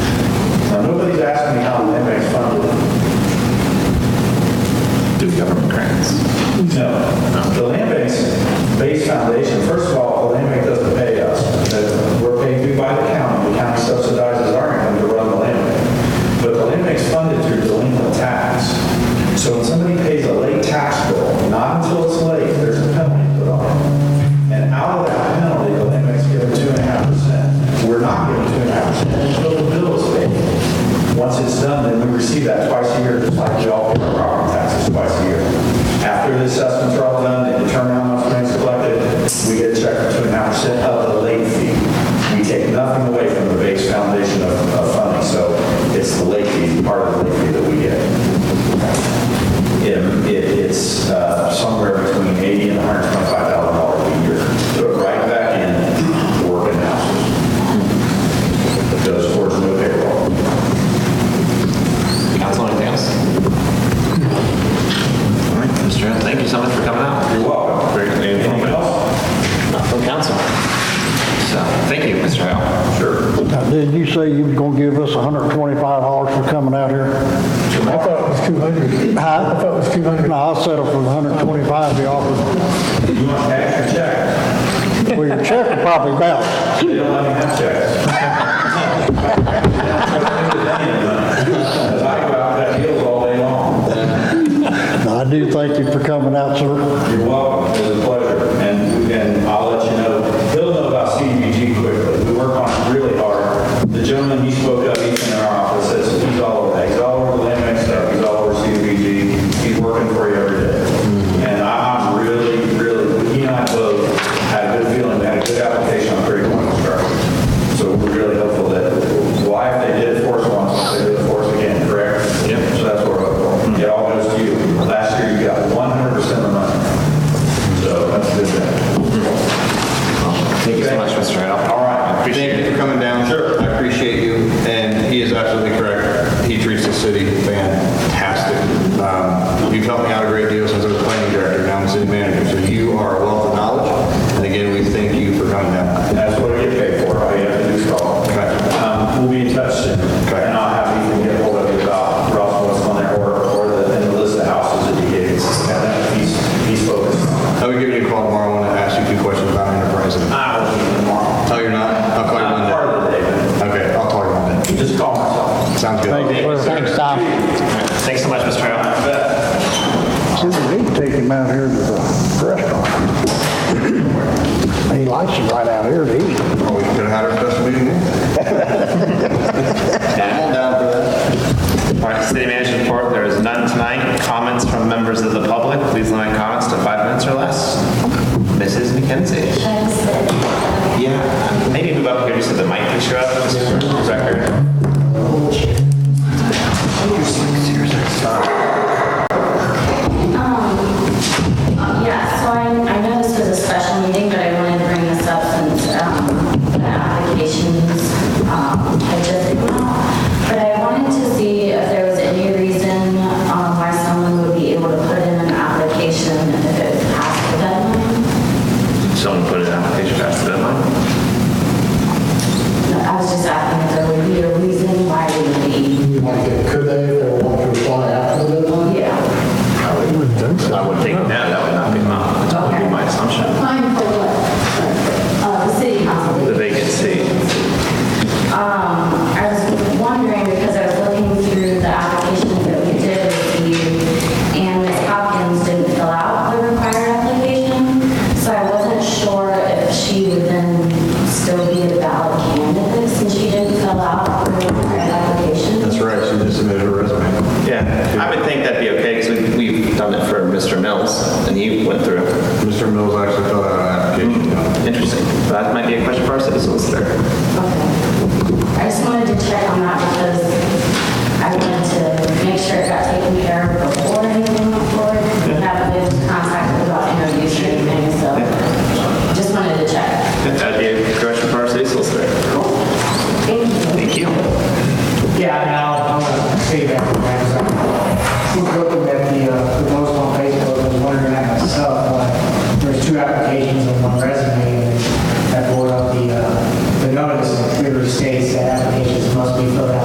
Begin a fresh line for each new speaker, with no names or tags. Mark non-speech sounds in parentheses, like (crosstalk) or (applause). Um, uh,
say you were gonna give us $125 for coming out here?
I thought it was 200.
Huh?
I thought it was 200.
No, I'll settle for the 125 you offered.
You want cash or check?
Well, your check will probably bounce.
They don't let me have checks. Because I go out that hill all day long.
No, I do thank you for coming out, sir.
You're welcome, it was a pleasure, and, and I'll let you know, he'll know about CDBG quickly, we work on it really hard. The gentleman he spoke of, he's in our office, says he's all over, that. he's all over the land bank stuff, he's all over CDBG, he's working for you every day. And I, I'm really, really, he and I both had a good feeling, we had a good application on three point construction. So we're really hopeful that, why, if they did it for us once, they did it for us again, correct? Yep. So that's what we're hopeful,
Mm-hmm.
it all goes to you, last year you got one hundred percent of the money. So that's a good thing.
Thank you so much, Mr. Al.
All right.
Thank you for coming down. Sure. I appreciate you, and he is absolutely correct. He treats the city fantastic. Um, You've helped me out a great deal since I was planning director, now I'm city manager, so you are a wealth of knowledge, and again, we thank you for coming down.
That's what we get paid for. All you have to do is call.
Okay.
Um, We'll be in touch soon.
Okay.
And I'll have you can get hold of you about Ross, what's on there, or, or the, and the list of houses that you gave. us. And that he's, he's focused on.
I'll be giving you a call tomorrow, I want to ask you a few questions about enterprise.
I will be in tomorrow.
Oh, you're not? I'll call you
I'm
Monday.
part of the day,
Okay, I'll call you Monday.
but just call myself.
Sounds good.
Thank you for next time.
Thanks so much, Mr. Al.
I bet.
See, we need to take him out here to the restaurant. He likes it right out here to eat.
Oh, we could have had our special meeting. I'm down for that.
All right, city manager report, there is none tonight. Comments from members of the public, please limit comments to five minutes or less. Mrs. McKenzie? Yeah, maybe move up here just so the mic picks you up, just for the record.
Um, Yeah, so I, I know this was a special meeting, but I wanted to bring this up since, um, the applications, um, had just come out. But I wanted to see if there was any reason, um, why someone would be able to put in an application if it was past the deadline.
Someone put an application past the deadline.
I was just asking if there would be a reason why we would be,
You want to get, could they, if they want to apply after the deadline?
yeah.
I would think now that would not be my, that would be my assumption.
Applying for what? Uh, the city council.
The vacancy.
Um, I was wondering, because I was looking through the applications that we did receive, and Ms. Hopkins didn't fill out the required application, so I wasn't sure if she would then still be a valid candidate since she didn't fill out the required application.
That's right, she just submitted her resume.
Yeah, I would think that'd be okay, because we've done it for Mr. Mills, and he went through.
Mr. Mills actually filled out an application.
(laughs) Interesting. That might be a question for our city solicitor.